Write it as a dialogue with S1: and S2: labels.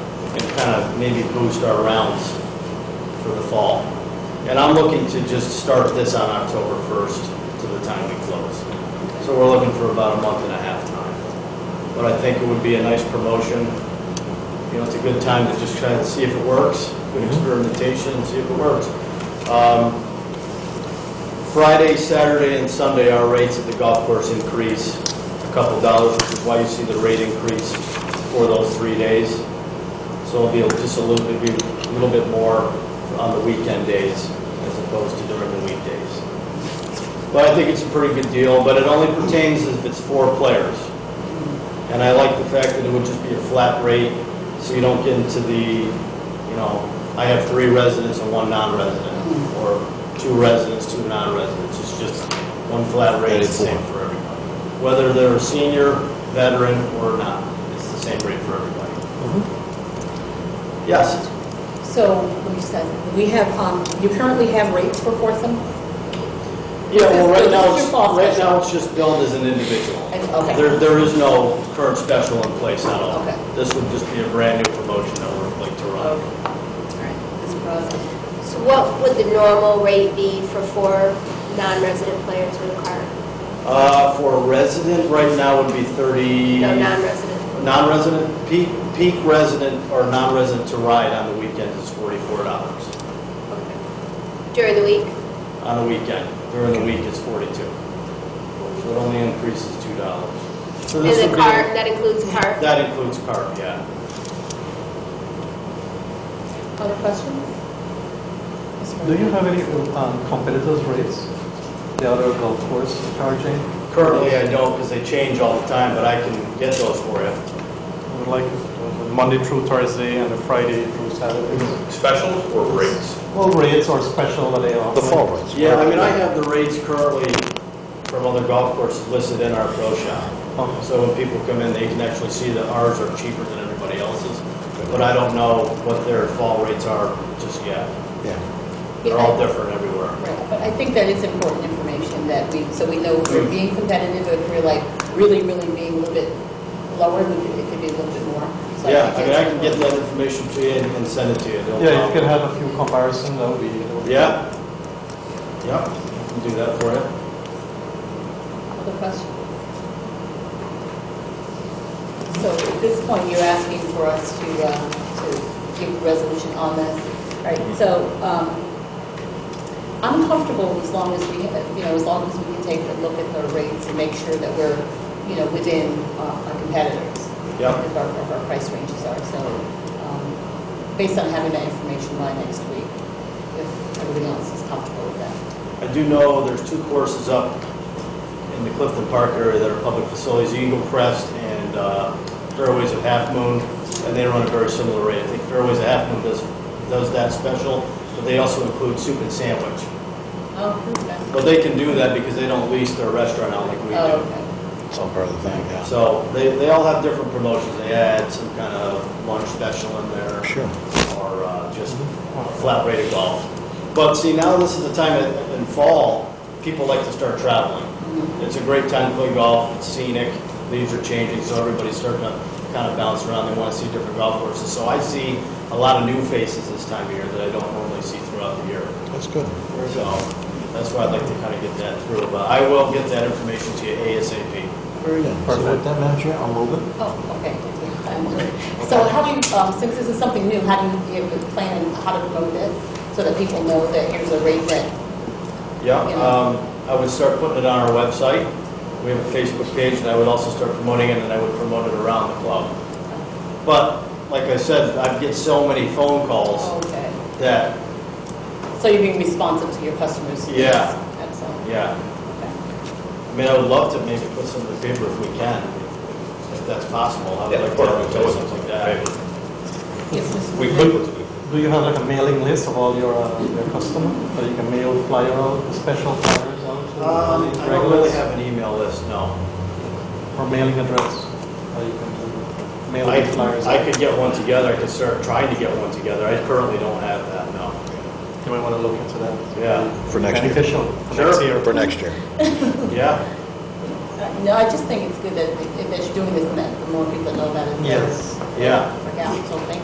S1: and kind of maybe boost our rounds for the fall. And I'm looking to just start this on October 1st to the time we close. So we're looking for about a month and a half time. But I think it would be a nice promotion. You know, it's a good time to just try to see if it works, good experimentation, and see if it works. Um, Friday, Saturday, and Sunday, our rates at the golf course increase a couple dollars, which is why you see the rate increase for those three days. So it'll be just a little bit, be a little bit more on the weekend days as opposed to during the weekdays. But I think it's a pretty good deal, but it only pertains if it's four players. And I like the fact that it would just be a flat rate, so you don't get into the, you know, I have three residents and one non-resident, or two residents, two non-residents. It's just one flat rate, it's the same for everybody. Whether they're a senior, veteran, or not, it's the same rate for everybody. Yes,
S2: So, let me start. We have, um, you currently have rates for Foursome?
S1: yeah, well, right
S2: This
S1: now,
S2: is
S1: it's,
S2: your fall
S1: right
S2: special.
S1: now, it's just billed as an individual.
S2: Okay.
S1: There, there is no current special in place at all.
S2: Okay.
S1: This would just be a brand-new promotion that we're like to run.
S3: So what would the normal rate be for four non-resident players with a card?
S1: Uh, for a resident, right now would be 30...
S3: No, non-resident.
S1: Non-resident, peak, peak resident or non-resident to ride on the weekend is forty-four dollars.
S3: During the week?
S1: On the weekend, during the week it's forty-two. So it only increases two dollars. So this would
S3: And the
S1: be-
S3: card, that includes a card?
S1: That includes cart, yeah.
S2: Other questions? Ms.
S4: Do you
S2: Murphy?
S4: have any um, competitors' rates? The other golf course charging?
S1: Currently, I don't, because they change all the time, but I can get those for you.
S5: I would like uh, Monday through Thursday and Friday through Saturday.
S6: Specials or rates?
S4: All rates are special that they offer?
S7: The fall rates.
S1: Yeah, I mean, I have the rates currently from other golf courses listed in our pro shop.
S4: Okay.
S1: So when people come in, they can actually see that ours are cheaper than everybody else's, but I don't know what their fall rates are just yet.
S7: Yeah.
S2: Yeah,
S1: They're
S2: I-
S1: all different everywhere.
S2: Right, But I think that it's important information that we, so we know if we're being competitive, if we're like really, really being a little bit lower, we could- it could be a little bit more. So
S1: Yeah, I
S2: think
S1: mean, I
S2: that's
S1: can get that information to you and and send it to you. no
S4: Yeah, if you
S1: problem.
S4: can have a few comparison, that would be... that would be-
S1: Yeah? Yep, I can do that for you.
S2: important. Other questions? So at this point, you're asking for us to, uh, to give a resolution on this, right? So um, I'm comfortable as long as we, you know, as long as we can take a look at the rates and make sure that we're, you know, within uh, our competitors.
S1: Yeah.
S2: If our, if our price ranges are, so um, based on having that information by next week, if everybody else is comfortable with that.
S1: I do know there's two courses up in the Clifton Park area that are public facilities, Eagle Crest and uh, Fairways of Half Moon, and they run a very similar rate. I think Fairways of Half Moon does, does that special, but they also include soup and sandwich.
S2: Oh, okay.
S1: But they can do that because they don't lease their restaurant out like we
S2: Oh,
S1: do.
S2: okay.
S7: It's all part of the thing, yeah.
S1: So they, they all have different promotions. They add some kind of lunch special in there.
S7: Sure.
S1: Or uh, just a flat rate of golf. But see, now this is the time in- in fall, people like to start traveling. It's a great time to play golf, it's scenic, leaves are changing, so everybody's starting to kind of bounce around. They want to see different golf courses. So I see a lot of new faces this time of year that I don't normally see throughout the year.
S7: That's good.
S1: So that's why I'd like to kind of get that through, but I will get that information to you ASAP.
S7: Very good. So with that, Madam Chair, I'll move it.
S2: Oh, okay. Um, So how do you, um, since this is something new, how do you give a plan on how to promote this so that people know that here's a rate that,
S1: Yeah, um, I would start putting it on our website. We have a Facebook page, and I would also start promoting it, and I would promote it around the club. But, like I said, I get so many phone calls
S2: okay.
S1: that,
S2: So you're being responsive to your customers?
S1: Yeah.
S2: Excellent.
S1: yeah.
S2: Okay.
S1: I mean, I would love to maybe put some in the paper if we can, if that's possible. I would
S6: Yeah, of
S1: like to
S6: course,
S1: have
S6: we can.
S1: a something like that.
S2: Yes, Mr.
S6: We
S2: Smith?
S6: could put it in.
S4: Do you have like a mailing list of all your, uh, your customer? Or you can mail flyer out, the special flyers out to all
S1: Um,
S4: these
S1: I don't really
S4: regulars?
S1: have an email list, no.
S4: Or mailing address? Or you can do
S1: I,
S4: mailing flyers?
S1: I
S4: out?
S1: could get one together, I could start trying to get one together, I currently don't have that, no.
S4: You might want to look into that.
S1: Yeah,
S7: For next year.
S4: Beneficial.
S1: Sure.
S4: Next year.
S7: For next year.
S1: yeah,
S2: Uh, No, I just think it's good that, that you're doing this and that the more people know about it. the better.
S4: Yes.
S1: yeah.
S2: Yeah, so thank you.